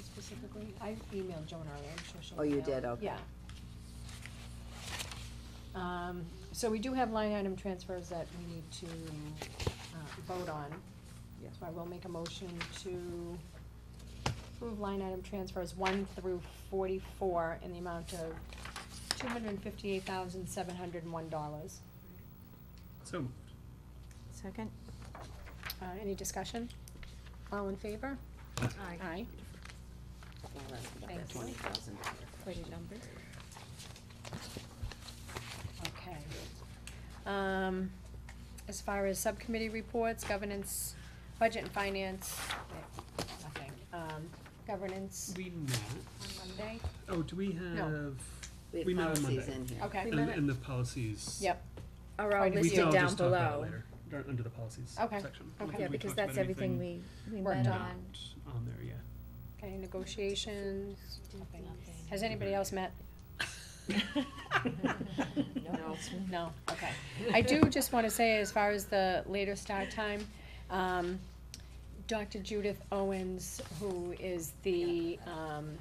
specifically? I emailed Joan already, I'm sure she'll. Oh, you email. did, okay. Yeah. Um, so we do have line item transfers that we need to, uh, vote on. Yeah. So I will make a motion to approve line item transfers one through forty-four in the amount of two hundred and fifty-eight thousand, seven hundred and one dollars. So moved. Second? Uh, any discussion? All in favor? Aye. Thank you. Twenty thousand. Pretty number. Okay. Um, as far as subcommittee reports, governance, budget and finance, eh, nothing. Um, governance We met. on Monday, Oh, do we have? We met have policies on Monday. in here. okay. And, and the policies. Yep, Are all Quite a We can listed all down just talk about it below. later, dar- under the policies Okay, section. I don't okay. think Yeah, we because talked about that's everything we, we worked met not on. on. On there, yeah. okay, negotiations, nothing. Has anybody else met? No. No, okay. I do just wanna say, as far as the later start time, um, Dr. Judith Owens, who is the, um,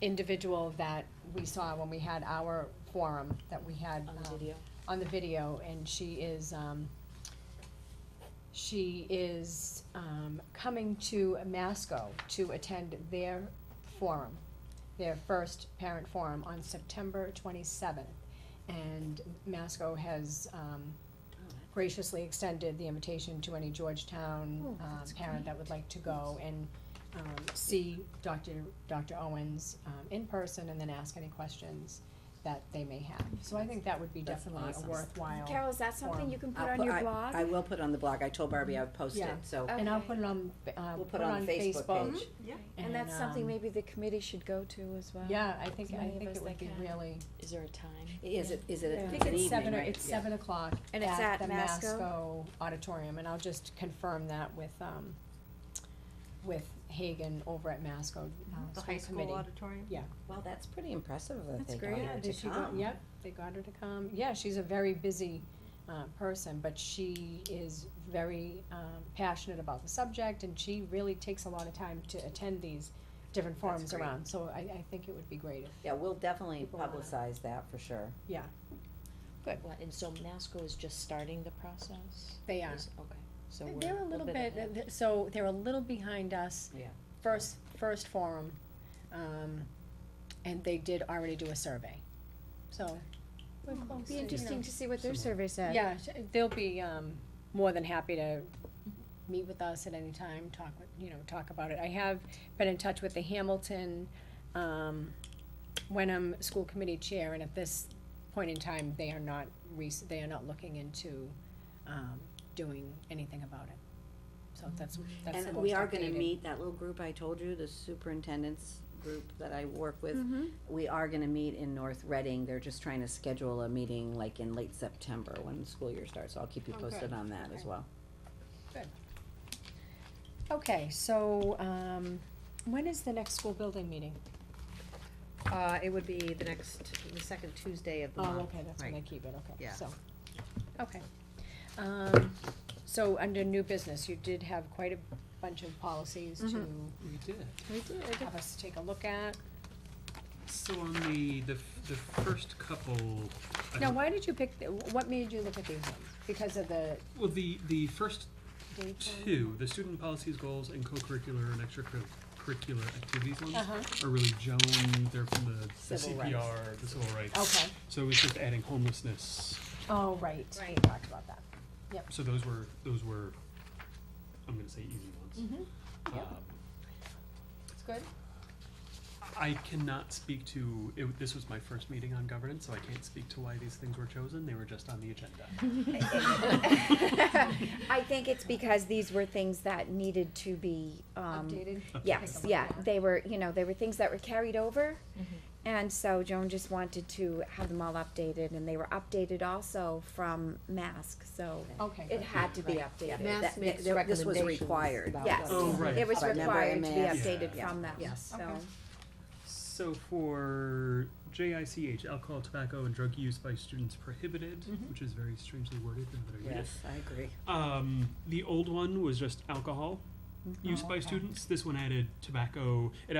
individual that we saw when we had our forum, that we had, um, on the video, and she is, um, she is, um, coming to Masco to attend their forum, their first parent forum on September twenty-seventh. And Masco has, um, graciously extended the invitation to any Georgetown, Oh, um, that's parent that would like to go and, um, see Dr., Dr. Owens, um, in person and then ask any questions that they may have. So I think that would be That's definitely a awesome. worthwhile. Carol, is that Forum. something you can I'll put on your I- blog? I will put on the blog, I told Barbie I would post it, Yeah. so Okay. And I'll put it on, uh, we'll put it on Facebook. page. Mm-hmm. And that's something um, maybe the committee should go to as well. Yeah, I think, I As many of think us it would that be can. really, Is there a time? Is it, is it I an think it's evening, seven, or- right? it's Yeah. seven o'clock And it's at at the Masco? Masco Auditorium, and I'll just confirm that with, um, with Hagan over at Masco, uh, The school high committee. school auditorium? Yeah. Well, that's pretty impressive that That's they got great. her Yeah, to did she go, come. yep, they got her to come, yeah, she's a very busy, uh, person, but she is very, um, passionate about the subject, and she really takes a lot of time to attend these different forums great. around, so I, I think it would be great if, Yeah, we'll definitely People wanna- publicize that for sure. yeah, What, and so Masco is just starting the process? they are. Is- Okay, so we're. They're a little bit, uh, ahead. th- so they're a little behind us. Yeah. First, first forum, um, and they did already do a survey, so. we're close, Be you know. interesting to see what their Similar. survey said. Yeah, sh- they'll be, um, more than happy to meet with us at any time, talk with, you know, talk about it. I have been in touch with the Hamilton, um, Wenham School Committee Chair, and at this point in time, they are not rec- they are not looking into, um, doing anything about it. So that's, that's the And most we are gonna updated. meet, that little group I told you, the superintendent's group that I work with, Mm-hmm. we are gonna meet in North Reading, they're just trying to schedule a meeting like in late September when the school year starts, so I'll keep you Oh, posted good. on that as Okay. well. Okay, so, um, when is the next school building meeting? Uh, it would be the next, the second Tuesday of the month. Oh, okay, that's when they right. keep it, okay, Yeah. so, okay. Um, so under new business, you did have quite a bunch of policies to Mm-hmm. We did. We did. have us take a look at. So on the, the, f- the first couple. I Now, don't- why did you pick, th- what made you look at these ones? Because of the Well, the, the first date? on- two, the student policies, goals, and co-curricular and extracurricular activities ones Uh-huh. are really Joan, they're from the the Civil rights. CPR, the civil rights. Okay, So it was just adding homelessness, oh, right, we Right. talked about that. so those were, those were, I'm gonna say easy ones. Mm-hmm, yep. Um, it's good. I cannot speak to, it, this was my first meeting on governance, so I can't speak to why these things were chosen, they were just on the agenda. I think it's because these were things that needed to be, um. Updated? Yes, Take a look yeah, at it. they were, you know, they were things that were carried over. And so Joan just wanted to have them all updated and they were updated also from mask, so Okay, it good. had to be Right. updated. Yeah. Mass That- makes that- This was recommendations required. about Yes. Oh, right. It was By member required to be MS. updated Yeah. from them, Yes. so. Okay. So for JICH, alcohol, tobacco, and drug use by students prohibited, Mhm. which is very strangely worded now that I read it. Yes, I agree. Um, the old one was just alcohol used Oh, by okay. students. This one added tobacco. It